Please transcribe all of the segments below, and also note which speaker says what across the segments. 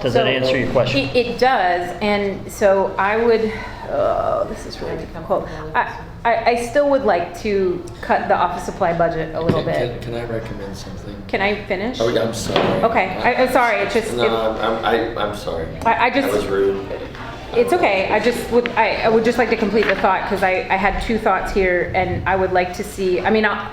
Speaker 1: Does that
Speaker 2: So-
Speaker 1: answer your question?
Speaker 2: It, it does, and so I would, oh, this is really difficult. I, I, I still would like to cut the office supply budget a little
Speaker 3: Can- can-
Speaker 2: bit.
Speaker 3: Can I recommend something?
Speaker 2: Can I finish?
Speaker 3: Oh, yeah, I'm sorry.
Speaker 2: Okay, I- I'm sorry, it just- it-
Speaker 3: No, I'm, I'm- I, I'm sorry.
Speaker 2: I- I just-
Speaker 3: was rude.
Speaker 2: It's okay, I just would, I, I would just like to complete the thought, because I, I had two thoughts here, and I would like to see, I mean, I-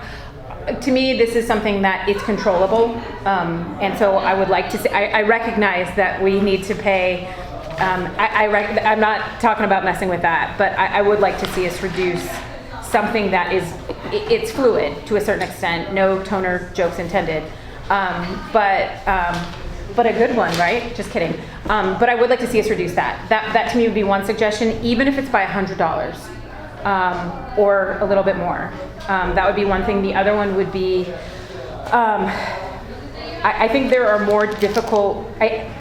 Speaker 2: to me, this is something that it's controllable, um, and so I would like to see, I, I recognize that we need to pay, um, I, I rec, I'm not talking about messing with that, but I, I would like to see us reduce something that is, i- it's fluid to a certain extent, no toner jokes intended, um, but, um, but a good one, right? Just kidding. Um, but I would like to see us reduce that. That, that to me would be one suggestion, even if it's by hundred dollars um, or a little bit more. Um, that would be one thing. The other one would be, um, I, I think there are more difficult. I,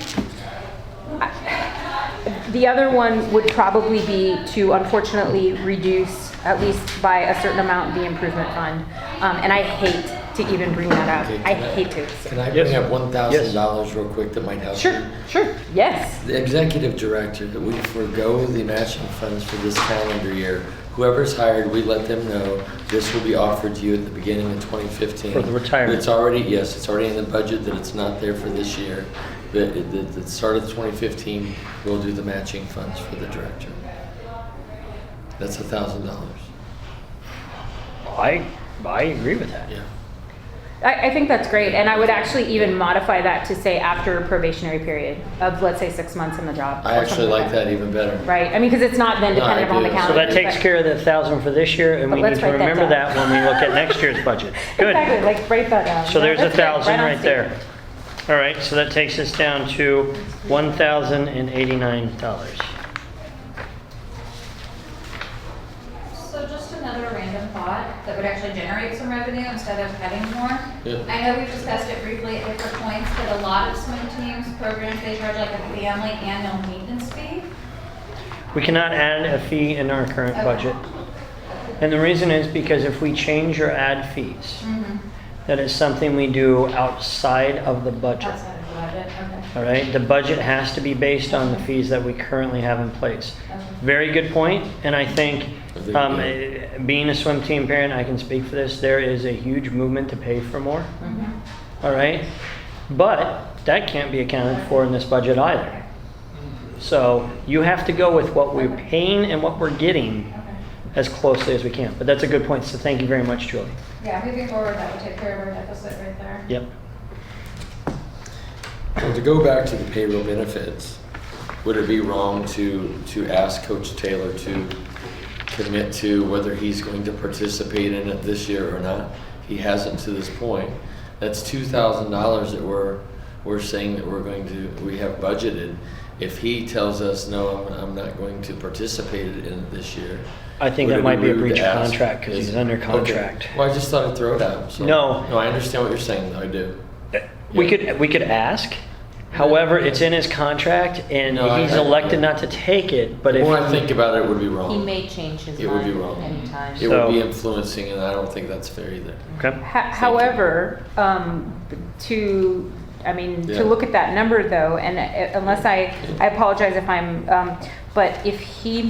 Speaker 2: the other one would probably be to unfortunately reduce, at least by a certain amount, the improvement fund. Um, and I hate to even bring that
Speaker 3: Okay,
Speaker 2: up. I
Speaker 3: can I-
Speaker 2: hate to.
Speaker 3: Can I bring
Speaker 1: Yes.
Speaker 3: up one thousand dollars real quick that might help?
Speaker 2: Sure,
Speaker 3: you?
Speaker 2: sure, yes.
Speaker 3: The executive director, that we forego the matching funds for this calendar year. Whoever's hired, we let them know this will be offered to you at the beginning of 2015.
Speaker 1: For the retirement.
Speaker 3: It's already, yes, it's already in the budget that it's not there for this year. But at the, the start of 2015, we'll do the matching funds for the director. That's a thousand dollars.
Speaker 1: I, I agree with that.
Speaker 3: Yeah.
Speaker 2: I, I think that's great, and I would actually even modify that to say after a probationary period of, let's say, six months in the job.
Speaker 3: I
Speaker 2: or
Speaker 3: actually
Speaker 2: something
Speaker 3: like that even better.
Speaker 2: Right, I mean, because it's not then
Speaker 3: No, I
Speaker 2: dependent upon the
Speaker 3: do. So
Speaker 2: calendar.
Speaker 1: So that takes
Speaker 2: but-
Speaker 1: care of the thousand for this year, and
Speaker 2: But
Speaker 1: we
Speaker 2: let's
Speaker 1: need to
Speaker 2: write that
Speaker 1: remember
Speaker 2: down.
Speaker 1: that when we look at next year's budget. Good.
Speaker 2: Exactly, like, write that down.
Speaker 1: So there's a
Speaker 2: That's good,
Speaker 1: thousand
Speaker 2: on
Speaker 1: right there. All right, so that takes us down to one thousand and eighty-nine dollars.
Speaker 4: So just another random thought that would actually generate some revenue instead of cutting more.
Speaker 3: Yeah.
Speaker 4: I know we've discussed it briefly at different points, but a lot of swim teams, programs, they charge like a family annual maintenance fee.
Speaker 1: We cannot add a fee in our current
Speaker 4: Okay.
Speaker 1: budget. And the reason is because if we change or add fees, that is something we do outside of the budget.
Speaker 4: Outside of the budget, okay.
Speaker 1: All right, the budget has to be based on the fees that we currently have in place. Very good point, and I think, um, eh, being a swim team parent, I can speak for this, there is a huge movement to pay for more. All right, but that can't be accounted for in this budget either. So you have to go with what we're paying and what we're getting as closely as we can. But that's a good point, so thank you very much, Julie.
Speaker 4: Yeah, moving forward, that would take care of our deficit right there.
Speaker 1: Yep.
Speaker 3: So to go back to the payroll benefits, would it be wrong to, to ask Coach Taylor to commit to whether he's going to participate in it this year or not? He hasn't to this point. That's two thousand dollars that we're, we're saying that we're going to, we have budgeted. If he tells us, no, I'm, I'm not going to participate in it this year.
Speaker 1: I think
Speaker 3: would
Speaker 1: that
Speaker 3: it
Speaker 1: might be a
Speaker 3: rude
Speaker 1: breach
Speaker 3: to
Speaker 1: of
Speaker 3: ask?
Speaker 1: contract 'cause
Speaker 3: Is-
Speaker 1: he's under
Speaker 3: okay.
Speaker 1: contract.
Speaker 3: Well, I just thought I'd throw it out, so.
Speaker 1: No.
Speaker 3: No, I understand what you're saying, though, I do.
Speaker 1: We could, we could ask. However, it's in his contract and
Speaker 3: No, I-
Speaker 1: he's
Speaker 3: I-
Speaker 1: elected not to take it, but
Speaker 3: The
Speaker 1: if.
Speaker 3: more I think about it, it would be wrong.
Speaker 5: He may change his
Speaker 3: It would
Speaker 5: mind
Speaker 3: be wrong.
Speaker 5: anytime.
Speaker 3: It would be
Speaker 1: So-
Speaker 3: influencing, and I don't think that's fair either.
Speaker 1: Okay.
Speaker 2: Ho- However, um, to, I mean,
Speaker 3: Yeah.
Speaker 2: to look at that number though, and uh, unless I, I apologize if I'm, um, but if he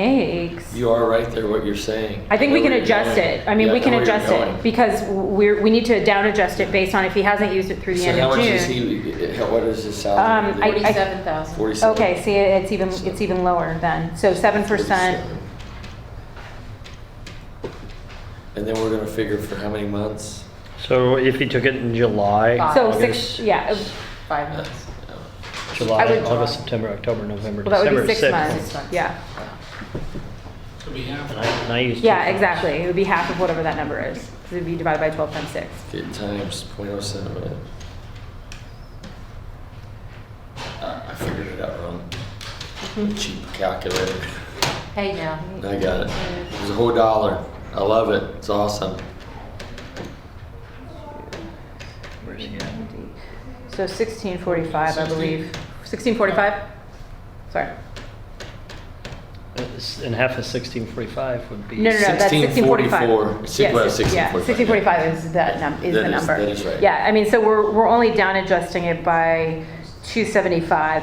Speaker 2: makes.
Speaker 3: You are right there, what you're saying.
Speaker 2: I think
Speaker 3: know
Speaker 2: we can
Speaker 3: where you're
Speaker 2: adjust
Speaker 3: going.
Speaker 2: it. I mean,
Speaker 3: Yeah,
Speaker 2: we can
Speaker 3: know where you're
Speaker 2: adjust it
Speaker 3: going.
Speaker 2: because we're, we need to down adjust it based on if he hasn't used it through the
Speaker 3: So
Speaker 2: end
Speaker 3: how
Speaker 2: of
Speaker 3: much is
Speaker 2: June.
Speaker 3: he, eh, how- what is his
Speaker 2: Um, I-
Speaker 3: salary?
Speaker 2: I-
Speaker 5: Forty-seven thousand.
Speaker 3: Forty-seven.
Speaker 2: Okay, see, it's even, it's even lower then. So seven percent.
Speaker 3: 47. And then we're gonna figure for how many months?
Speaker 1: So if he took it in July.
Speaker 5: Five.
Speaker 2: So
Speaker 1: August,
Speaker 2: six, yeah,
Speaker 5: Five
Speaker 3: Uh,
Speaker 5: months.
Speaker 1: July,
Speaker 2: I would-
Speaker 1: August, September, October, November,
Speaker 2: well, that would
Speaker 1: December,
Speaker 2: be six months.
Speaker 5: Six months.
Speaker 2: Yeah,
Speaker 1: And I and I used. two
Speaker 2: yeah,
Speaker 1: phones.
Speaker 2: exactly. It would be half of whatever that number is. 'cause It'd be divided by twelve times six.
Speaker 3: Get times point oh seven. Uh, I figured it out wrong.
Speaker 2: Mm-hmm.
Speaker 3: Cheap calculator.
Speaker 5: Hey now.
Speaker 3: I got it. It was a whole dollar. I love it. It's awesome.
Speaker 1: Where's he at?
Speaker 2: So sixteen forty-five, I believe. Sixteen forty-five? Sorry.
Speaker 1: That's- And half of sixteen forty-five would be.
Speaker 2: No, no, no, that's sixteen
Speaker 3: 1644.
Speaker 2: forty-five.
Speaker 3: Six- well, 1645,
Speaker 2: Sixteen forty-five is that num, is
Speaker 3: That
Speaker 2: the
Speaker 3: is-
Speaker 2: number.
Speaker 3: that is right.
Speaker 2: Yeah, I mean, so we're, we're only down adjusting it by 275,